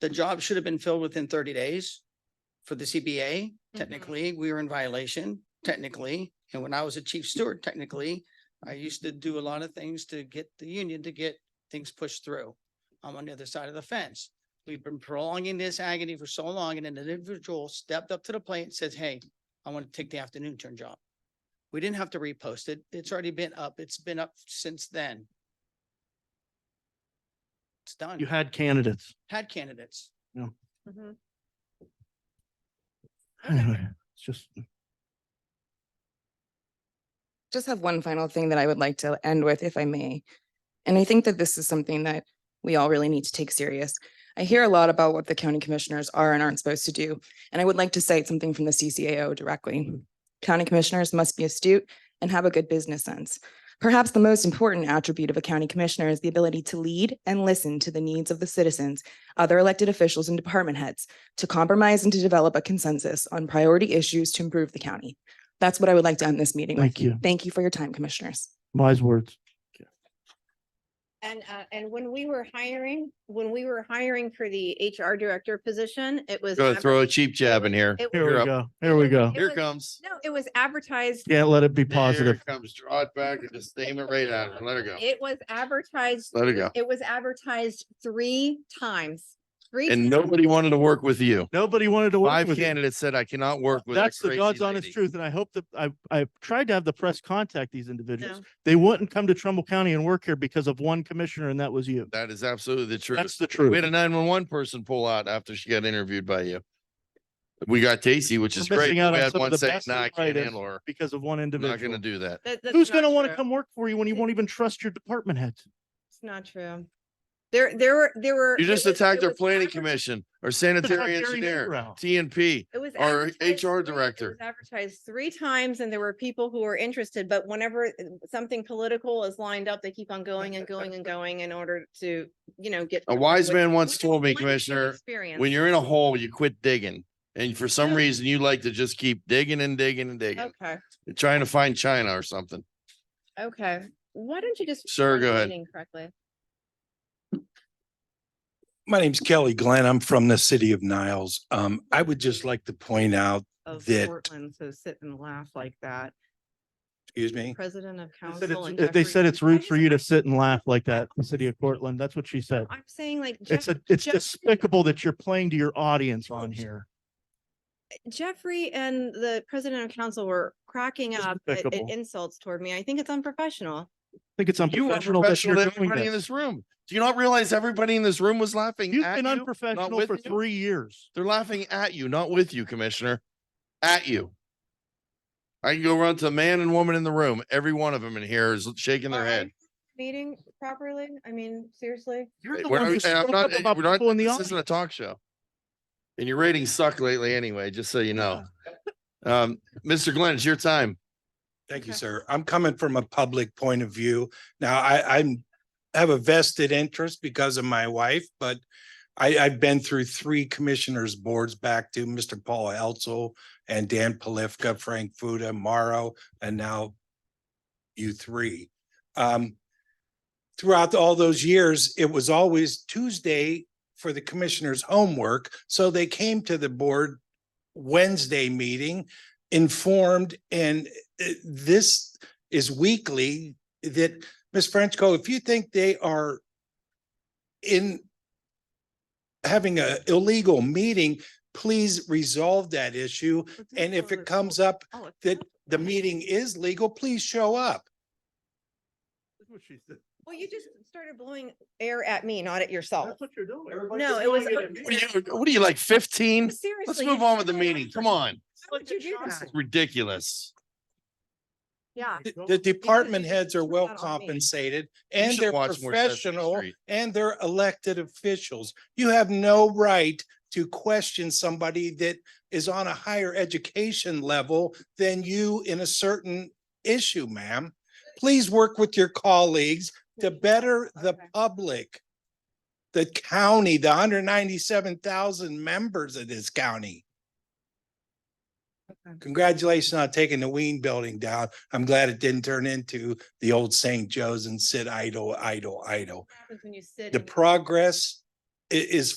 the job should have been filled within thirty days for the CBA. Technically, we were in violation, technically. And when I was a chief steward, technically, I used to do a lot of things to get the union to get things pushed through. I'm on the other side of the fence. We've been prolonging this agony for so long and an individual stepped up to the plate and says, hey, I want to take the afternoon turn job. We didn't have to repost it. It's already been up. It's been up since then. It's done. You had candidates. Had candidates. Mhm. Anyway, it's just, Just have one final thing that I would like to end with, if I may. And I think that this is something that we all really need to take serious. I hear a lot about what the county commissioners are and aren't supposed to do, and I would like to cite something from the CCAO directly. County commissioners must be astute and have a good business sense. Perhaps the most important attribute of a county commissioner is the ability to lead and listen to the needs of the citizens, other elected officials and department heads, to compromise and to develop a consensus on priority issues to improve the county. That's what I would like to end this meeting with. thank you. Thank you for your time, commissioners. Wise words. And, uh, and when we were hiring, when we were hiring for the HR director position, it was. Gonna throw a adver- cheap jab in here. it Here was- You're we up. go. Here we go. It Here was- comes. No, it was advertised, Can't let it be Here positive. Comes, draw it back and just aim it right at her. Let her go. it was advertised, Let her go. it was advertised three times. Three And times. nobody wanted to work with you. Nobody wanted to work Five with you. candidates said, I cannot work with. that That's the crazy God's honest lady." truth. And I hope that I, I tried to have the press contact these individuals. No. They wouldn't come to Trumbull County and work here because of one commissioner and that was you. That is absolutely the That's truth. the We had a truth. nine one one person pull out after she got interviewed by you. We got Casey, which is We're great. missing We out on had some of one the saying, best nah, I can't writers. handle her. Because of one I'm not gonna individual. do that. That- that's Who's not going to want to true. come work for you when you won't even trust your department heads? It's not true. There, there were, there were. You it just was- attacked it our was planning adver- commission, our It's not sanitary Gary engineer, Negrow. TNP. It was. our advertised HR three- it director. was Advertised three times and there were people who were interested, but whenever uh, something political is lined up, they keep on going and going and going in order to, you know, get. A wise what- man once what- told what me, is your Commissioner, experience? when you're in a hole, you quit digging. And for some Yeah. reason, you like to just keep digging and digging and digging, Okay, trying to find China or something. okay. Why don't you just? Sir, run the go ahead. meeting Correctly. My name's Kelly Glenn. I'm from the city of Niles. Um, I would just like to point out, of that- Portland, so sit and laugh like that. excuse me, President of They said council. it's- and uh, They Jeffrey- said it's I rude just- for you to sit and laugh like that, in the city of Portland. That's what she said. I'm saying like. It's Jeff- a, it's Jeff- despicable that you're playing to your audience on here. Jeffrey and the president of council were cracking It's up at- at despicable. insults toward me. I think it's unprofessional. I think it's You unprofessional are that professional you're to doing everybody in this. this room. Do you not realize everybody in this room was laughing You've at been you? unprofessional with for you? three years. They're laughing at you, not with you, Commissioner. At you. I can go run to man and woman in the room. Every one of them in here is shaking their Are- are head. you Meeting properly? I mean, seriously? You're the We're one who not- and I'm spoke not- up about we're not- people in the This isn't a audience. talk show. And your ratings suck lately anyway, just so you know. Um, Mr. Glenn, it's your time. Thank you, Okay. sir. I'm coming from a public point of view. Now, I, I'm, have a vested interest because of my wife, but I, I've been through three commissioners' boards back to Mr. Paul Elzel and Dan Palifka, Frank Fuda, Morrow, and now you three. Um, throughout all those years, it was always Tuesday for the commissioners' homework, so they came to the board Wednesday meeting informed and uh, this is weekly that, Ms. Frenchco, if you think they are in having a illegal meeting, please resolve that issue. And if it comes up Oh, it's that not- the meeting is legal, please show up. Well, you just started blowing air at me, not at yourself. That's what you're doing. Oh. No, it was- What are you, what are you like fifteen? Seriously. Let's you move on with the started meeting. Come blowing- on. Why would you do that? Ridiculous. Yeah. The- Well, The because department they heads are control well that on me. compensated You and should they're watch more Sesame professional Street. and they're elected officials. You have no right to question somebody that is on a higher education level than you in a certain issue, ma'am. Please work with your colleagues to better the Okay. public. The county, the hundred ninety-seven thousand members of this county. Okay. Congratulations on taking the Ween building down. I'm glad it didn't turn into the old St. Joe's and sit idle, idle, idle. What happens when you sit The and- progress i- is